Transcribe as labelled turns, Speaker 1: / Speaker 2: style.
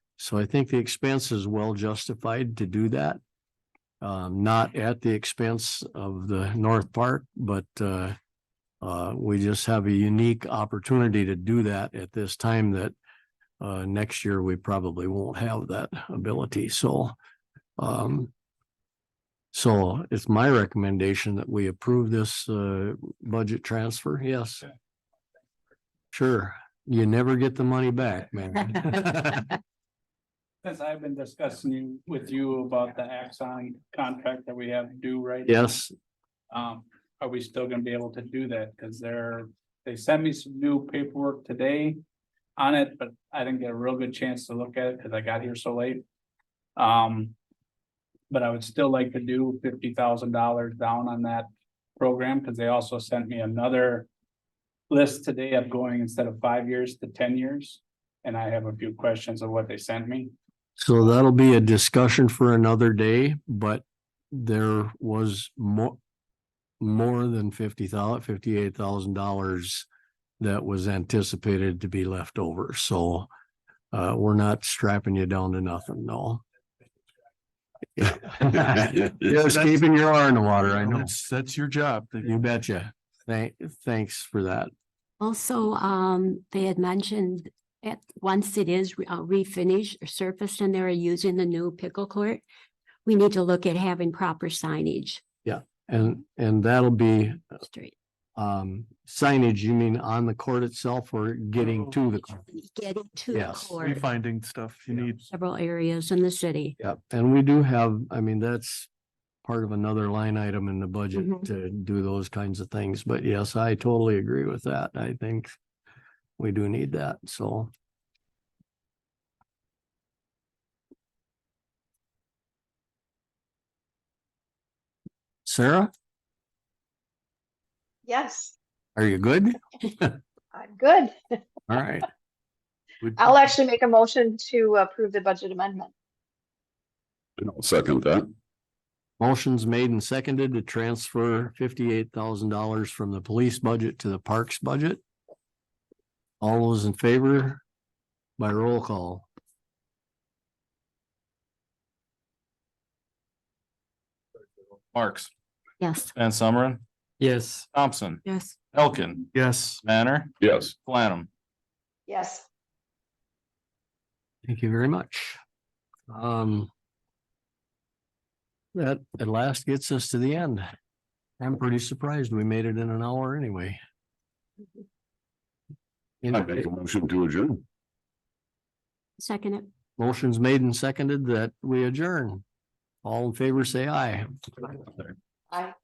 Speaker 1: So I think the expense is well justified to do that. Um, not at the expense of the North Park, but, uh, uh, we just have a unique opportunity to do that at this time that, uh, next year we probably won't have that ability, so, um, so it's my recommendation that we approve this, uh, budget transfer, yes.
Speaker 2: Okay.
Speaker 1: Sure, you never get the money back, man.
Speaker 2: Since I've been discussing with you about the Axon contract that we have due right? now,
Speaker 1: Yes,
Speaker 2: Um, are we still gonna be able to do that? Cause they're, they sent me some new paperwork today on it, but I didn't get a real good chance to look at it because I got here so late. Um, but I would still like to do fifty thousand dollars down on that program, because they also sent me another list today of going instead of five years to ten years, and I have a few questions of what they sent me.
Speaker 1: So that'll be a discussion for another day, but there was more. More than fifty thousand, fifty-eight thousand dollars that was anticipated to be left over, so. Uh, we're not strapping you down to nothing, no. Just keeping your eye in the water, I know.
Speaker 3: That's, that's your job.
Speaker 1: You betcha. Thank, thanks for that.
Speaker 4: Also, um, they had mentioned at, once it is re- uh, refinished or surfaced and they're using the new pickle court, we need to look at having proper signage.
Speaker 1: And, and that'll be,
Speaker 4: Street.
Speaker 1: um, signage, you mean on the court itself or getting to the court?
Speaker 4: Getting to the
Speaker 1: Yes.
Speaker 4: court,
Speaker 3: Finding stuff you
Speaker 1: Yeah.
Speaker 3: need.
Speaker 4: several areas in the city.
Speaker 1: Yep, and we do have, I mean, that's part of another line item in the budget
Speaker 4: Mhm.
Speaker 1: to do those kinds of things, but yes, I totally agree with that. I think we do need that, so. Sarah,
Speaker 5: Yes,
Speaker 1: are you good?
Speaker 5: I'm good.
Speaker 1: All right,
Speaker 3: We-
Speaker 5: I'll actually make a motion to approve the budget amendment.
Speaker 6: I'll second that.
Speaker 1: motion's made and seconded to transfer fifty-eight thousand dollars from the police budget to the parks budget. All those in favor by roll call.
Speaker 7: Marks,
Speaker 4: Yes.
Speaker 7: Van Summeren,
Speaker 1: Yes.
Speaker 7: Thompson,
Speaker 4: Yes.
Speaker 7: Elkin,
Speaker 3: Yes,
Speaker 7: Manner,
Speaker 6: Yes,
Speaker 7: Planum.
Speaker 5: Yes,
Speaker 1: Thank you very much. Um. That at last gets us to the end. I'm pretty surprised we made it in an hour anyway.
Speaker 6: I make a motion to adjourn.
Speaker 4: Second it.
Speaker 1: Motion's made and seconded that we adjourn. All in favor, say aye.
Speaker 5: I.